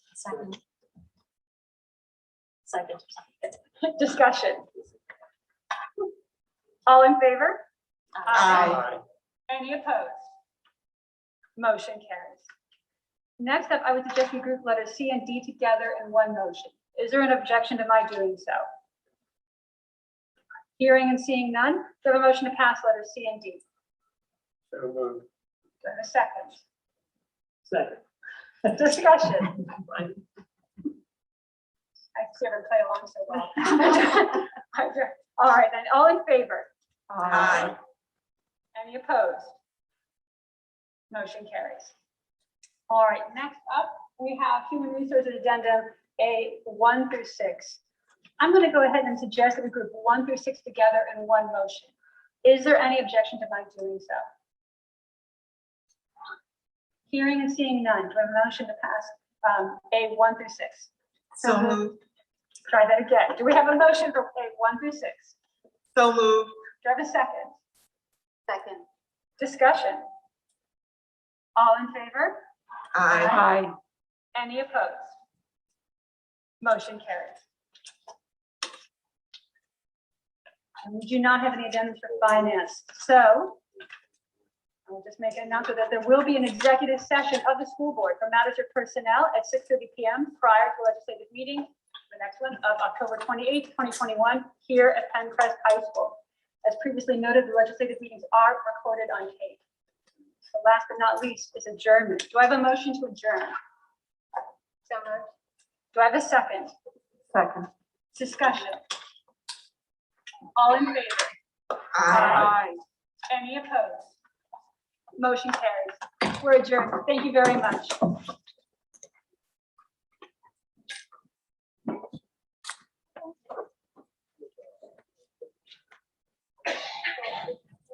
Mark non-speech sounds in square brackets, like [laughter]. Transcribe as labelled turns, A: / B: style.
A: Second. Second.
B: Discussion. All in favor?
A: Aye.
B: Any opposed? Motion carries. Next up, I would suggest we group letters C and D together in one motion. Is there an objection to my doing so? Hearing and seeing none, do I have a motion to pass letters C and D?
C: So moved.
B: Do I have a second?
C: Second.
B: Discussion. I see her play along so well. [laughs] All right, then, all in favor?
A: Aye.
B: Any opposed? Motion carries. All right, next up, we have Human Resources Addendum A one through six. I'm going to go ahead and suggest that we group one through six together in one motion. Is there any objection to my doing so? Hearing and seeing none, do I have a motion to pass um, A one through six?
D: So moved,
B: Try that again. Do we have a motion for A one through six?
D: so moved,
B: Do I have a second?
A: Second.
B: Discussion? All in favor?
D: aye.
B: Aye. Any opposed? Motion carries. And we do not have any addendums for finance, so I'll just make an announcement that there will be an executive session of the school board for matters of personnel at six thirty PM prior to legislative meeting, the next one of October twenty-eighth, twenty twenty-one, here at Pencrest High School. As previously noted, the legislative meetings are recorded on tape. So Last but not least is adjournment. Do I have a motion to adjourn? So moved. Do I have a second?
D: Second.
B: Discussion. All in favor?
D: Aye.
B: Any opposed? Motion carries. We're adjourned. Thank you very much.